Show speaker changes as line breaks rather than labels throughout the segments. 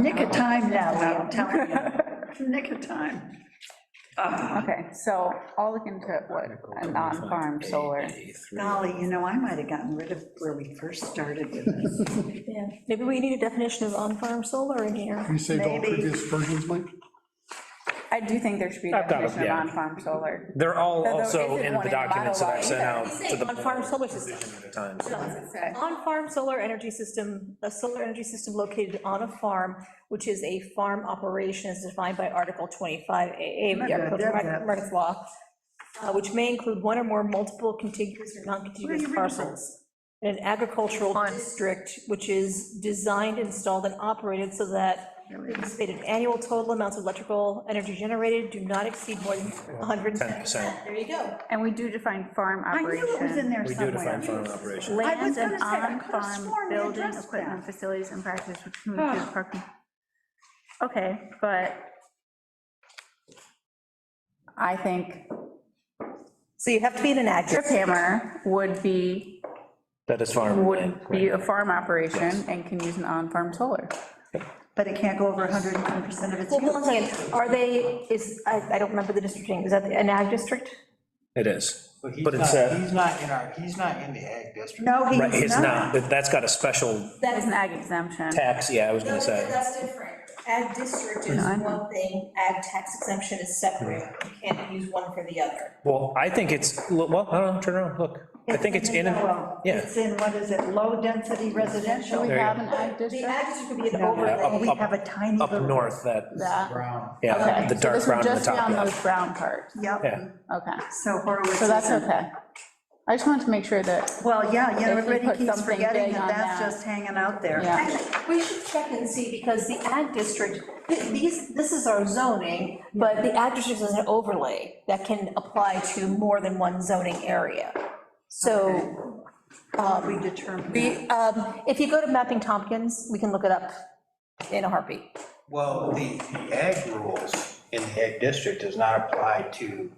Nick of time now, Lee, I'm telling you. Nick of time.
Okay, so I'll look into what, a non-farm solar.
Golly, you know, I might have gotten rid of where we first started with this.
Yeah, maybe we need a definition of on-farm solar in here.
You saved all
Maybe.
previous versions, Mike?
I do think there should be a
I've got it,
definition of
yeah.
non-farm solar.
They're all
There
also
isn't
in
one
the
in Ottawa
documents that I've sent out
either.
to the
On-farm solar system,
board times.
Okay.
on-farm solar energy system, a solar energy system located on a farm, which is a farm operation as defined by Article 25AA of the Articles of Mar- Markets Law, uh, which may include one or more multiple contiguous or non-contiguous parcels. in an agricultural district, which is designed, installed, and operated so that the anticipated annual total amounts of electrical energy generated do not exceed more than 110%.
10%.
There you go.
And we do define farm
I knew it was in
operation.
there
We do define
somewhere.
farm operation.
I was
Lands
gonna
and
say, I
on-farm
could've sworn we
buildings,
addressed
equipment,
that.
facilities, and practices which can include parking. Okay, but I think
So you have to be in an
Trip
ag,
Hammer would be,
That is farm.
would be a farm operation and can use an on-farm solar.
But it can't go over 110% of its
well, hold on
use.
a second, are they, is, I, I don't remember the district name, is that an ag district?
It is.
But he's
But it's
not,
a,
he's not in our, he's not in the ag district.
No, he
right, it's
was
not,
not.
That- that's got a special
That is an ag exemption.
tax, yeah, I was gonna say.
That's different. Ag district is
I know.
one thing, ag tax exemption is separate, you can't use one for the other.
Well, I think it's, well, I don't know, turn around, look. I think it's in,
Well,
yeah,
It's in, what is it, low-density residential?
We
you
have an ag
The
district.
ag district could be an
No,
overlay.
up-
We
up-
have a tiny
up
little.
north, that,
That,
Brown.
yeah,
okay.
the
So
dark
this would
brown on the
just be
top.
on
yeah.
those brown parts.
Yeah.
Yep,
Okay,
so Horowitz.
so that's
isn't-
okay. I just wanted to make sure that,
Well, yeah, you know,
If we
everybody
put
keeps
something
forgetting
big
that
on
that's
that.
just hanging out there.
yeah.
Actually, We should check and see, because the ag district, th- these, this is our zoning, but the ag district is an overlay that can apply to more than one zoning area. So,
We determine.
we, um, if you go to Mapping Tompkins, we can look it up in a heartbeat.
Well, the, the ag rules in the ag district does not apply to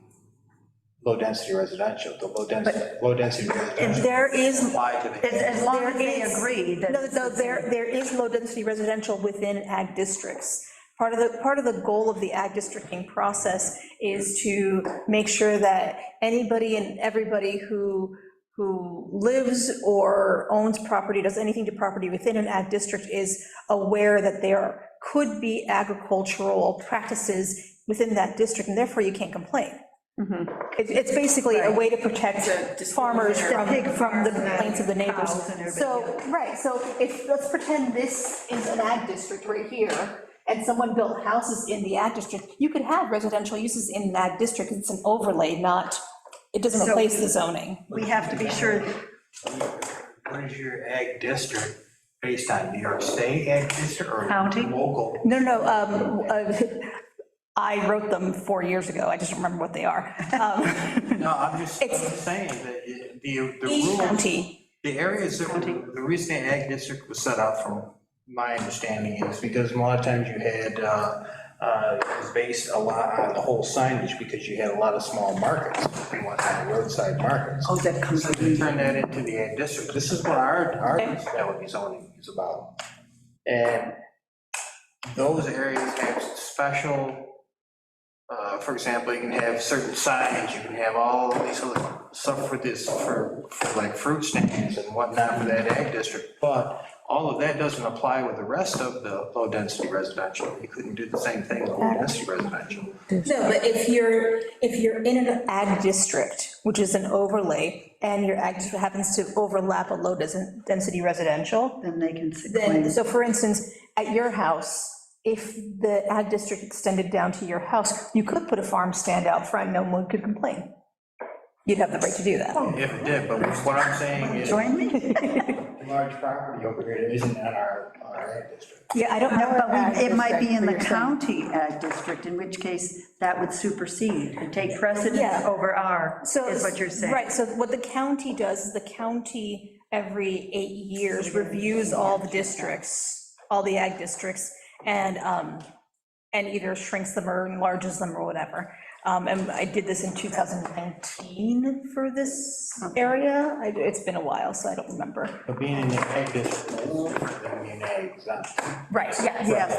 low-density residential. The low-density, low-density
And
residential
there is,
apply to the.
as, as long as they
There is-
agree that.
No, no, there, there is low-density residential within ag districts. Part of the, part of the goal of the ag districting process is to make sure that anybody and everybody who, who lives or owns property, does anything to property within an ag district is aware that there could be agricultural practices within that district, and therefore you can't complain. It's, it's basically a way to protect farmers from, from the complaints of the neighbors.
Cows and everybody
So, right, so if, let's pretend this is an ag district right here, and someone built houses in the ag district, you could have residential uses in an ag district, it's an overlay, not, it doesn't
So-
replace the zoning.
We have to be sure,
What is your ag district based on, New York State ag district or?
County?
Local.
No, no, um, uh, I wrote them four years ago, I just don't remember what they are. Um,
No, I'm just I'm
It's-
just saying that it- the, the
Each
rules.
county,
The areas that, were- the reason the ag district was set up, from my understanding, is because a lot of times you had, uh, uh, it was based a lot on the whole signage, because you had a lot of small markets, you want roadside markets.
oh, that comes with
They turned that into the ag district, this is what our, our, that would be zoning is about. And those areas have special, uh, for example, you can have certain signs, you can have all these other stuff for this, for, for like fruit stands and whatnot for that ag district, but all of that doesn't apply with the rest of the low-density residential. You couldn't do the same thing with low-density residential.
No, but if you're, if you're in an ag district, which is an overlay, and your ag district happens to overlap a low dens- density residential,
then they can sit
then,
claims.
so for instance, at your house, if the ag district extended down to your house, you could put a farm stand out front, no one could complain. You'd have the right to do that.
If it did, but what I'm saying is.
Join me?
large property over here that isn't in our, our ag district.
Yeah, I don't
No,
know.
but we- it might be in the
Ag district, for your
county ag district, in which case that would supersede and take precedence
Yeah.
over our, is what you're saying.
Right, so what the county does, is the county every eight years reviews all the districts, all the ag districts, and, um, and either shrinks them or enlarges them or whatever. Um, and I did this in 2019 for this area, I- it's been a while, so I don't remember.
But being in the ag district, is different than being ag exempt.
Right, yeah,
Yes.